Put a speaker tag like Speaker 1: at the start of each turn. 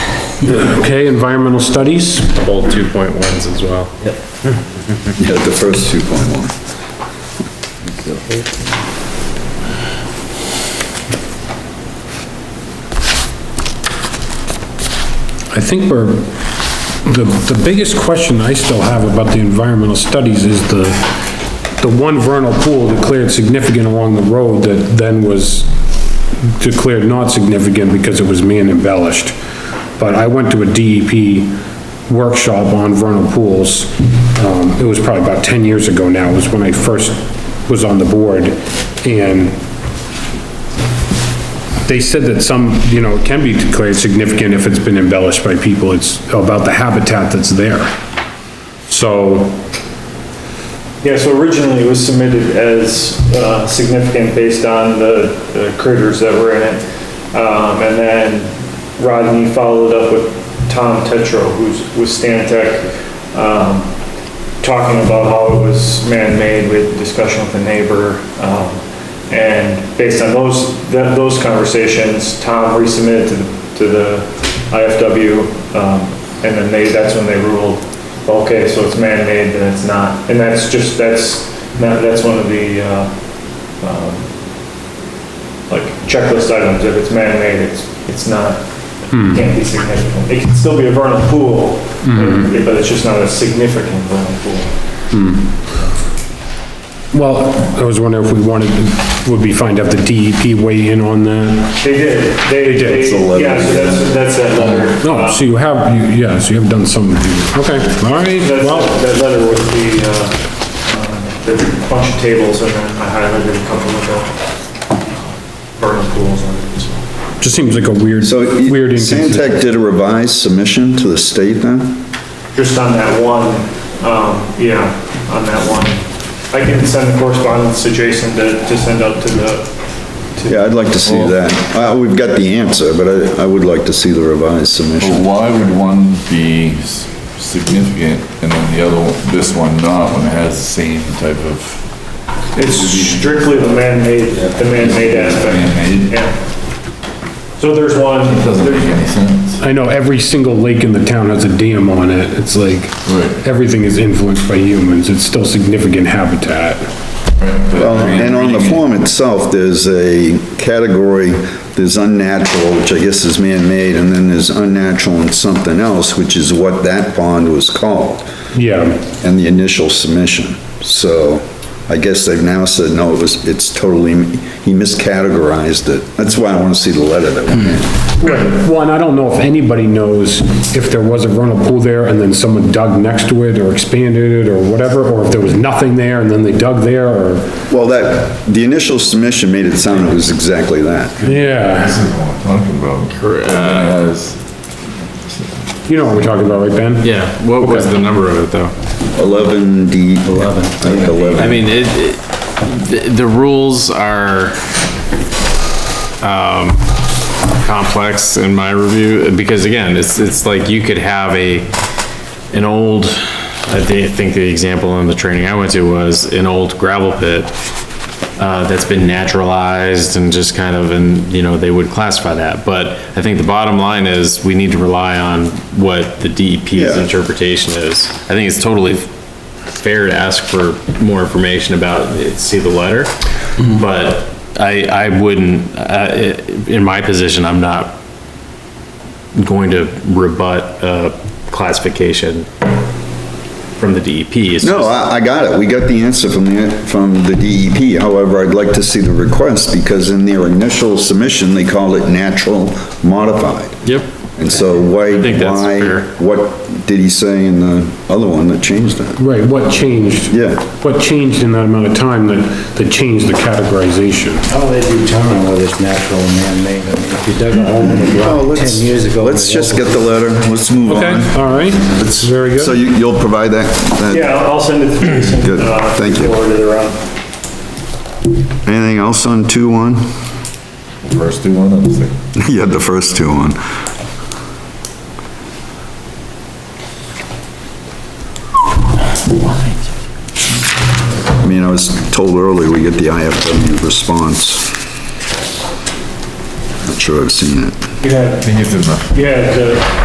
Speaker 1: Okay, environmental studies,
Speaker 2: both two point ones as well.
Speaker 3: Yeah, the first two point one.
Speaker 1: I think we're, the, the biggest question I still have about the environmental studies is the, the one vernal pool declared significant along the road that then was declared not significant because it was man embellished. But I went to a DEP workshop on vernal pools, um, it was probably about ten years ago now, was when I first was on the board, and they said that some, you know, it can be declared significant if it's been embellished by people, it's about the habitat that's there. So,
Speaker 4: Yeah, so originally it was submitted as uh, significant based on the the critters that were in it. Um, And then Rodney followed up with Tom Tetro, who's with Stantec, um, talking about how it was man-made with discussion with the neighbor. um, And based on those, that- those conversations, Tom resubmitted to the- to the IFW, um, and then they, that's when they ruled, okay, so it's man-made, then it's not. And that's just, that's, that- that's one of the, uh, um, like checklist items, if it's man-made, it's, it's not,
Speaker 1: Hmm.
Speaker 4: can't be significant. It can still be a vernal pool,
Speaker 1: Mm-hmm.
Speaker 4: but it's just not a significant vernal pool.
Speaker 1: well, I was wondering if we wanted, would we find out the DEP weigh in on that?
Speaker 4: They did, they,
Speaker 1: did.
Speaker 4: they,
Speaker 1: It's a
Speaker 3: letter.
Speaker 4: yeah, so that's, that's that letter.
Speaker 1: No, so you have, you- yeah, so you have done some, okay, all right,
Speaker 4: That's,
Speaker 1: well,
Speaker 4: that letter with the, uh, the bunch of tables, and then I highlighted a couple of the vernal pools on it, so.
Speaker 1: just seems like a weird,
Speaker 3: So
Speaker 1: weird inconsistency.
Speaker 3: Santec did a revised submission to the state then?
Speaker 4: just on that one, um, yeah, on that one. I can send the correspondence to Jason to, to send out to the,
Speaker 3: Yeah, I'd like to see that. Uh, we've got the answer, but I, I would like to see the revised
Speaker 5: But
Speaker 3: submission.
Speaker 5: why would one be s- significant and then the other, one- this one not, when it has the same type of
Speaker 4: it's strictly the man-made, the man-made aspect,
Speaker 5: man-made?
Speaker 4: yeah. So there's one,
Speaker 5: Doesn't make
Speaker 4: there's-
Speaker 5: any sense.
Speaker 1: I know every single lake in the town has a dam on it, it's like,
Speaker 5: Right.
Speaker 1: everything is influenced by humans, it's still significant habitat.
Speaker 3: Well, and on the form itself, there's a category, there's unnatural, which I guess is man-made, and then there's unnatural and something else, which is what that pond was called.
Speaker 1: Yeah.
Speaker 3: and the initial submission. So I guess they've now said, no, it was, it's totally, he miscategorized it. That's why I want to see the letter that went in.
Speaker 1: Well, and I don't know if anybody knows if there was a vernal pool there and then someone dug next to it or expanded it or whatever, or if there was nothing there and then they dug there or,
Speaker 3: Well, that, the initial submission made it sound it was exactly that.
Speaker 1: yeah,
Speaker 5: This is what I'm talking about. Correct.
Speaker 1: you know what we're talking about, right, Ben?
Speaker 2: Yeah, what was the number of it though?
Speaker 3: 11 D. 11. I think
Speaker 2: I
Speaker 3: 11.
Speaker 2: mean, it, it- the, the rules are, um, complex in my review, because again, it's, it's like you could have a, an old, I thi- think the example in the training I went to was an old gravel pit, uh, that's been naturalized and just kind of, and, you know, they would classify that, but I think the bottom line is, we need to rely on what the DEP's
Speaker 3: Yeah.
Speaker 2: interpretation is. I think it's totally fair to ask for more information about, it, see the letter, but I, I wouldn't, uh, i- in my position, I'm not going to rebut a classification from the E DEP. It's
Speaker 3: No,
Speaker 2: just-
Speaker 3: I, I got it. We got the answer from the, from the DEP. However, I'd like to see the request because in their initial submission, they called it natural modified.
Speaker 2: Yep,
Speaker 3: And so why,
Speaker 2: think that's
Speaker 3: why,
Speaker 2: fair.
Speaker 3: what did he say in the other one that changed that?
Speaker 1: Right, what changed?
Speaker 3: Yeah.
Speaker 1: What changed in that amount of time that, that changed the categorization?
Speaker 6: How do they determine whether it's natural or man-made? I mean, if you dug a hole in the
Speaker 3: Oh,
Speaker 6: ground
Speaker 3: let's-
Speaker 6: ten years ago.
Speaker 3: Let's
Speaker 6: and
Speaker 3: just get the letter, let's move
Speaker 1: Okay,
Speaker 3: on.
Speaker 1: all right, that's very
Speaker 3: So
Speaker 1: good.
Speaker 3: you, you'll provide that? that-
Speaker 4: yeah, I'll I'll send it to Jason.
Speaker 3: Good,
Speaker 4: uh,
Speaker 3: thank you.
Speaker 4: Forward it around.
Speaker 3: Anything else on two one?
Speaker 5: First two one, I was like,
Speaker 3: You had the first two on. I mean, I was told earlier, we get the IFW response. Not sure I've seen it.
Speaker 4: You had,
Speaker 5: I think it's enough.
Speaker 4: you had the